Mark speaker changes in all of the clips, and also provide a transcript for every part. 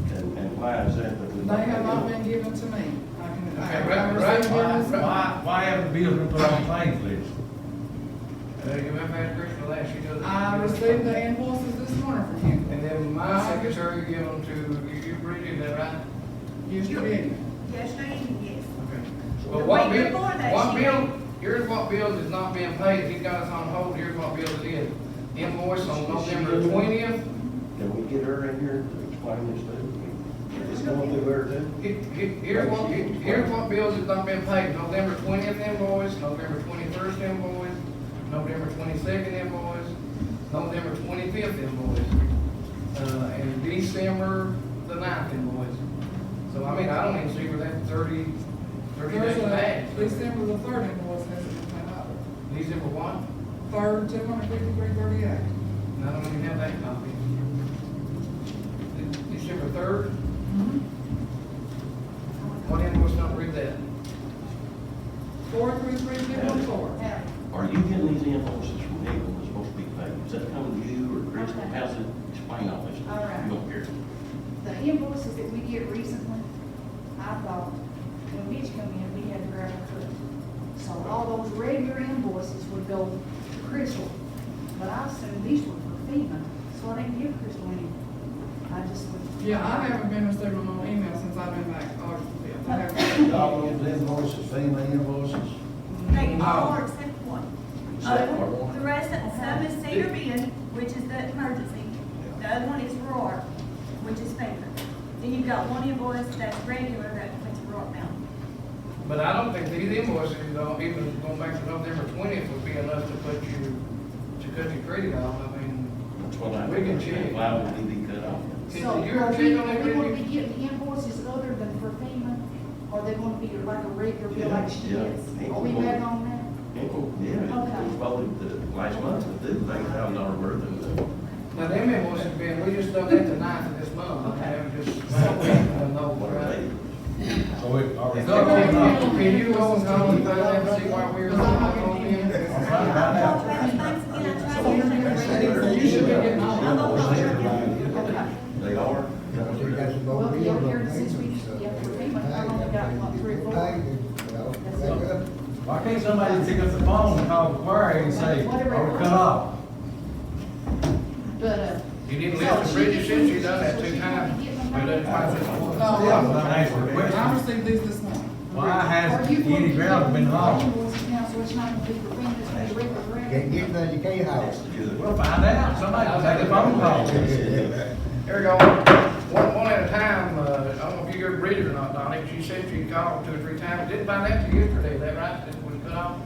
Speaker 1: Why is that? that we-
Speaker 2: They have not been given to me. I can, I
Speaker 3: Okay,
Speaker 2: can
Speaker 3: right,
Speaker 2: understand
Speaker 3: right,
Speaker 2: them.
Speaker 3: right, right.
Speaker 4: Why, why haven't the bills been put on claims list?
Speaker 3: Uh, you remember that Christmas last year? though?
Speaker 2: I received Uh-huh. the invoices this morning from you.
Speaker 3: And then my secretary gave them to, you, you read it, that right?
Speaker 2: You should be.
Speaker 5: Yes, ma'am, yes.
Speaker 3: Okay.
Speaker 5: The
Speaker 3: But what
Speaker 5: week
Speaker 3: bill,
Speaker 5: before that,
Speaker 3: what
Speaker 5: she-
Speaker 3: bill, here's what bills is not being paid, he got us on hold, here's what bill it is. Invoice on November twentieth,
Speaker 1: Can we get her in here to explain this to me? It's going through her too.
Speaker 3: here's what, here's what bills is not being paid. November twentieth invoice, November twenty-first invoice, November twenty-second invoice, November twenty-fifth invoice, uh, and December the ninth invoice. So I mean, I don't even see where that thirty, thirty
Speaker 2: There's
Speaker 3: days
Speaker 2: a,
Speaker 3: back.
Speaker 2: December the third invoice hasn't been paid out.
Speaker 3: December what?
Speaker 2: Third, two hundred fifty-three thirty-eight.
Speaker 3: I don't even have that copy. De- December third, what invoice number is that?
Speaker 2: Four, three, three, two, one, four.
Speaker 5: Yeah.
Speaker 1: Are you getting these invoices from people that's supposed to be paid? Is that coming to you or Chris? How's it, explain all this.
Speaker 5: All right.
Speaker 1: You don't care.
Speaker 5: The invoices that we get recently, I thought, when Mitch come in, we had to grab a cook. So all those regular invoices would go to Crystal, but I assumed these were for FEMA, so I didn't give Crystal any. I just would.
Speaker 2: Yeah, I haven't been receiving no email since I've been back August the fifth. I haven't-
Speaker 6: All those invoices, FEMA invoices,
Speaker 7: They all except one. Uh,
Speaker 1: Except for one.
Speaker 7: The rest, of some is Cedar Bend, which is the emergency. The other one is Roar, which is FEMA. Then you've got one invoice that's regular, that that's Roar Mountain.
Speaker 3: But I don't think these invoices, though, even going back to November twentieth would be enough to put you, to cut your credit off, I mean.
Speaker 1: That's what I.
Speaker 3: We can check.
Speaker 1: Why would we be cut off?
Speaker 3: Did
Speaker 5: So
Speaker 3: you
Speaker 5: are
Speaker 3: check
Speaker 5: we,
Speaker 3: on that,
Speaker 5: are we gonna be
Speaker 3: Randy?
Speaker 5: getting invoices other than for FEMA, or they gonna be like a regular bill like she
Speaker 1: Yeah,
Speaker 5: is?
Speaker 1: yeah.
Speaker 5: Are we back on
Speaker 1: People, yeah, it was voted the last month to do, they have not worth of it.
Speaker 3: Now, them invoices being, we just done that the ninth of this month, I haven't just.
Speaker 1: What are they?
Speaker 4: So it, Oh, are we?
Speaker 3: It's not going on. Can you go and call and find out and see why we're not on them?
Speaker 2: You should be getting all of them.
Speaker 5: that? Okay.
Speaker 1: They are.
Speaker 6: they got to go
Speaker 5: Well,
Speaker 6: in.
Speaker 5: yeah, here, since we- yeah, for FEMA, I've only got, what, three or four?
Speaker 4: Why can't somebody pick up the phone and call the quarry and say, are we cut off?
Speaker 5: But, uh.
Speaker 3: You didn't lift the bridges since you done that two times. We done it twice this month.
Speaker 2: No,
Speaker 4: That's what I asked for a
Speaker 2: I
Speaker 4: question.
Speaker 2: received these this morning.
Speaker 4: Why has
Speaker 5: Are you
Speaker 4: any ground been lost?
Speaker 5: Invoices now, so it's not gonna be for FEMA, it's gonna be regular,
Speaker 6: Can't
Speaker 5: regular.
Speaker 6: get nothing, you can't house.
Speaker 4: We'll find out. Somebody will take a phone call.
Speaker 3: Here we go, one, one at a time, uh, I don't know if you heard Bridget or not, Donnie, she said she called two or three times, didn't find out till yesterday, is that right? That was cut off,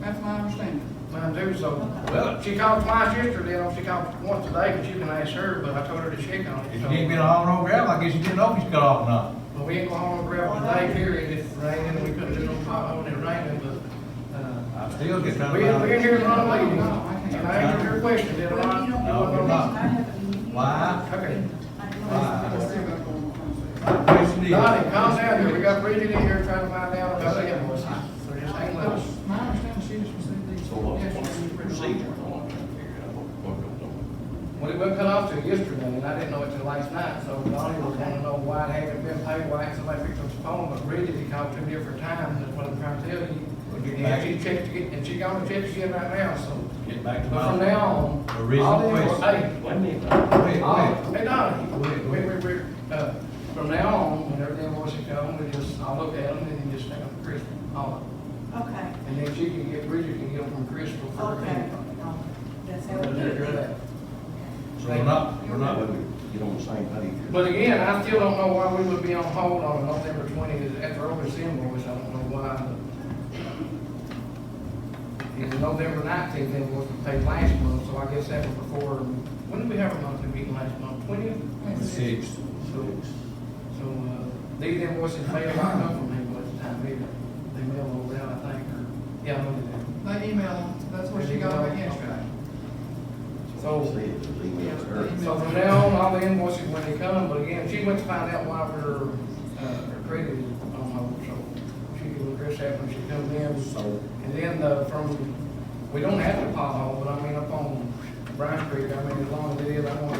Speaker 2: That's my understanding.
Speaker 3: mine too, so, well, she called twice yesterday, and she called once today, but you can ask her, but I told her to check on it,
Speaker 4: If you
Speaker 3: so.
Speaker 4: didn't get all on gravel, I guess you didn't know if you cut off or not.
Speaker 3: Well, we ain't going home and grab today, period, it's raining, we couldn't do no pothole, it raining, but, uh,
Speaker 4: I still get kind
Speaker 3: we,
Speaker 4: of.
Speaker 3: we in here running late,
Speaker 2: No, I can't.
Speaker 3: and I answered your question, did I?
Speaker 5: Well, you don't know
Speaker 4: No,
Speaker 5: what
Speaker 4: we're not.
Speaker 5: I haven't-
Speaker 4: Why?
Speaker 5: I
Speaker 3: Okay.
Speaker 5: don't know.
Speaker 4: Why?
Speaker 2: I still got one more conversation.
Speaker 4: My question is-
Speaker 3: Donnie, calm down here, we got Bridget in here trying to find out about the invoices, so just hang with us.
Speaker 2: My understanding, she just received these.
Speaker 1: So what's, what's the
Speaker 2: yesterday.
Speaker 1: procedure? I want to figure out what- what goes on.
Speaker 3: Well, it wasn't cut off till yesterday, and I didn't know it till last night, so Donnie was wanting to know why it hadn't been paid, why hadn't somebody picked up the phone, but Bridget, he called two different times, that's what I'm trying to tell you. And she checked, again- and she gonna check again right now, so,
Speaker 4: Get back to
Speaker 3: but from
Speaker 4: my.
Speaker 3: now on, all
Speaker 4: Original
Speaker 3: the invoices,
Speaker 4: question.
Speaker 3: hey,
Speaker 1: Wait a minute.
Speaker 4: Wait, wait.
Speaker 3: all, hey, Donnie, wait, wait, wait, wait, uh, from now on, whenever the invoices come, we just, I'll look at them, and then just take them to Crystal, all of them.
Speaker 5: Okay,
Speaker 3: And then she can get, Bridget can get them from Crystal for her.
Speaker 5: okay. No, That's how
Speaker 3: But
Speaker 5: we do
Speaker 3: they're
Speaker 5: it.
Speaker 3: good.
Speaker 4: So we're not, we're not.
Speaker 1: Get on the same page.
Speaker 3: But again, I still don't know why we would be on hold on November twentieth after over invoice, I don't know why. but- And the November nineteenth invoice was paid last month, so I guess that was before, when did we have our monthly meeting last month, twentieth?
Speaker 4: Six.
Speaker 3: So, so, uh, these invoices may have not come from invoice time either, they mail those out, I think, or, yeah, I know they do.
Speaker 2: They emailed them, that's what she got back yesterday.
Speaker 3: So-
Speaker 1: See, it's an email to her.
Speaker 3: So from now on, all the invoices when they come, but again, she went to find out why her, uh, her credit is on hold, so she can address that when she comes in.
Speaker 4: So
Speaker 3: And then, uh, from, we don't have a pothole, but I mean, up on Bryant Creek, I mean, as long as it is, I want